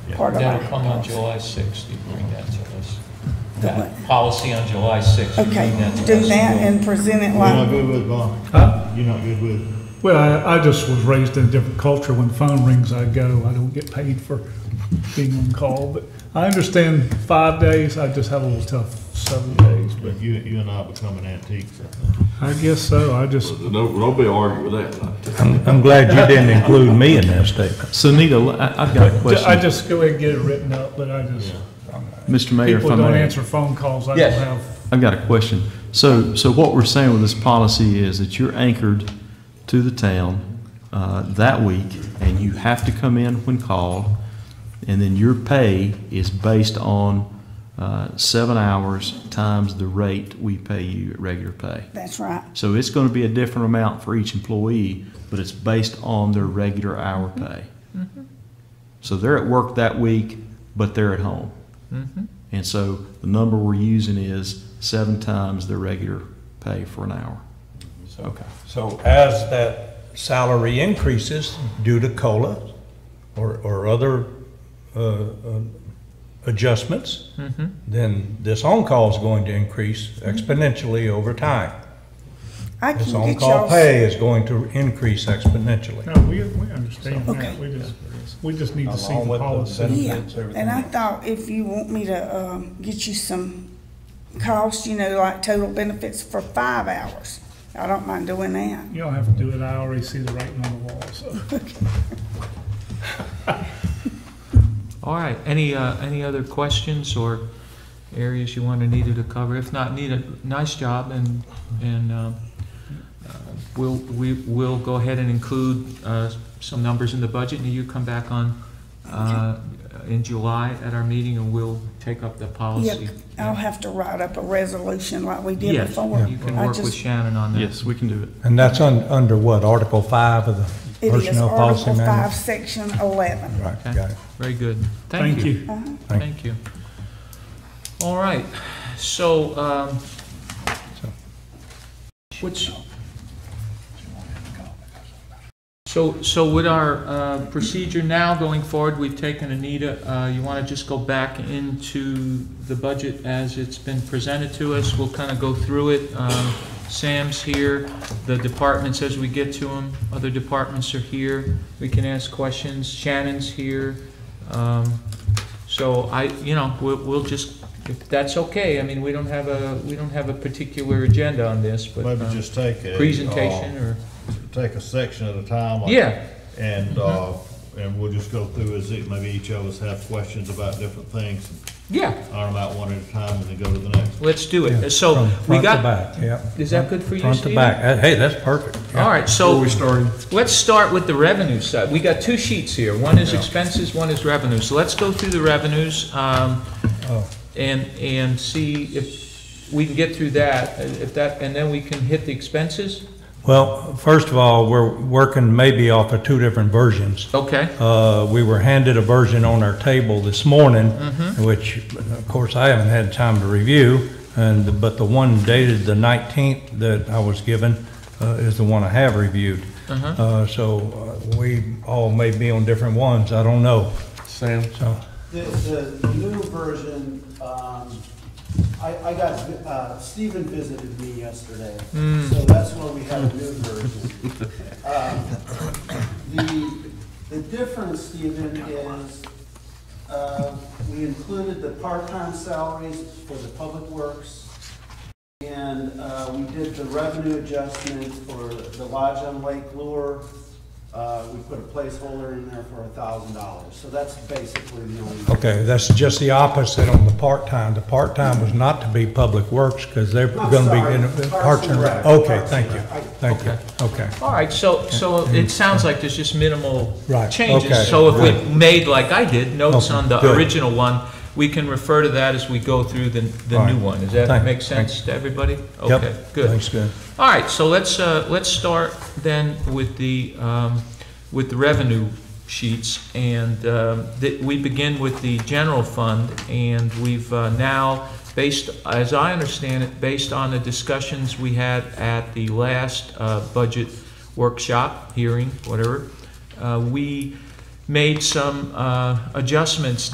part of That'll our come on July 6th, you bring that to us. The That what? policy on July 6th. you Okay, bring that to do us. that and present it You're not like, good with Bob? Huh? You're not good with, Well, I, I just was raised in a different culture. When the phone rings, I go. I don't get paid for being on call, but I understand five days. I just have a little tough seven days, but but you, you and I becoming antiques, I think. I guess so. I just, No, nobody argue with that. I'm, I'm glad you didn't include me in that statement. So Nita, I- I've got a I question. just go ahead and get it written up, but I just, Mr. Mayor, if people I don't may, answer phone calls. I Yes. don't have, I've got a question. So, so what we're saying with this policy is that you're anchored to the town uh, that week, and you have to come in when called, and then your pay is based on uh, seven hours times the rate we pay you at regular pay. that's right. So it's going to be a different amount for each employee, but it's based on their regular hour pay. So they're at work that week, but they're at home. And so the number we're using is seven times their regular pay for an hour. Okay. So as that salary increases due to COLA or, or other, uh, uh, adjustments, Mm-hmm. then this on-call is going to increase exponentially over time. I This can get on-call y'all, pay is going to increase exponentially. no, we, we understand Okay. that. We just, we just need to see Along the with the policy. benefit. yeah, everything and I else. thought if you want me to, um, get you some costs, you know, like total benefits for five hours, I don't mind doing that. You don't have to do it. I already see the writing on the wall, so. All right, any, uh, any other questions or areas you wanted Nita to cover? If not, Nita, nice job, and, and um, uh, we'll, we will go ahead and include uh, some numbers in the budget, and you come back on uh, in July at our meeting, and we'll take up the policy. Yeah, I'll have to write up a resolution like we did before. Yes, you can I work with just- Shannon on that. Yes, we can do it. And that's un, under what, Article Five of the It is Personnel Policy Article Five, Manual? Section eleven. Right, Okay. got it. Very good. Thank you. Thank you. All right, so, um, what's, so, so with our uh, procedure now going forward, we've taken Anita, uh, you want to just go back into the budget as it's been presented to us? We'll kind of go through it. Um, Sam's here, the departments as we get to them, other departments are here, we can ask questions, Shannon's here. Um, so I, you know, we'll, we'll just, if that's okay, I mean, we don't have a, we don't have a particular agenda on this, but. Maybe um, just take a. uh, Presentation or, Take a section at a time. like- yeah, Mm-hmm. And, uh, and we'll just go through as it, maybe each of us have questions about different things, yeah, iron them out one at a time and then go to the next. let's do Yeah, it. Uh, So from we front to got, back, yeah. is that good for you, Front to Steve? back. Uh, Hey, that's perfect. All right, so starting. let's start with the revenue side. We got two sheets here. One is expenses, one is revenue. So let's go through the revenues, um, Oh. and, and see if we can get through that, if that, and then we can hit the expenses? Well, first of all, we're working maybe off of two different versions. Okay. Uh, We were handed a version on our table this morning, Mm-hmm. which, of course, I haven't had time to review, and, but the one dated the 19th that I was given uh, is the one I have reviewed. Mm-hmm. Uh, So uh, we all may be on different ones, I don't know. Sam? So, The, the new version, um, I, I got, uh, Stephen visited me yesterday, so that's why we have a new version. Um, The, the difference, Stephen, is, uh, we included the part-time salaries for the public works, and, uh, we did the revenue adjustment for the lodge on Lake Lure. Uh, we put a placeholder in there for a thousand dollars, so that's basically the only. okay, that's just the opposite on the part-time. The part-time was not to be Public Works, because they're I'm going to sorry, be in Parks and Rec. Okay, Parks thank and you, Rec. thank you, okay. All right, so, so it sounds like there's just minimal Right, okay, changes. So if good. we made, like I did, notes Okay, on the good. original one, we can refer to that as we go through the, the All right. new one. Does that Thank- make sense to everybody? Yep, Okay, good. Thanks, good. All right, so let's, uh, let's start then with the, um, with the revenue sheets. And um, th- we begin with the general fund, and we've uh, now, based, as I understand it, based on the discussions we had at the last uh, budget workshop, hearing, whatever, uh, we made some uh, adjustments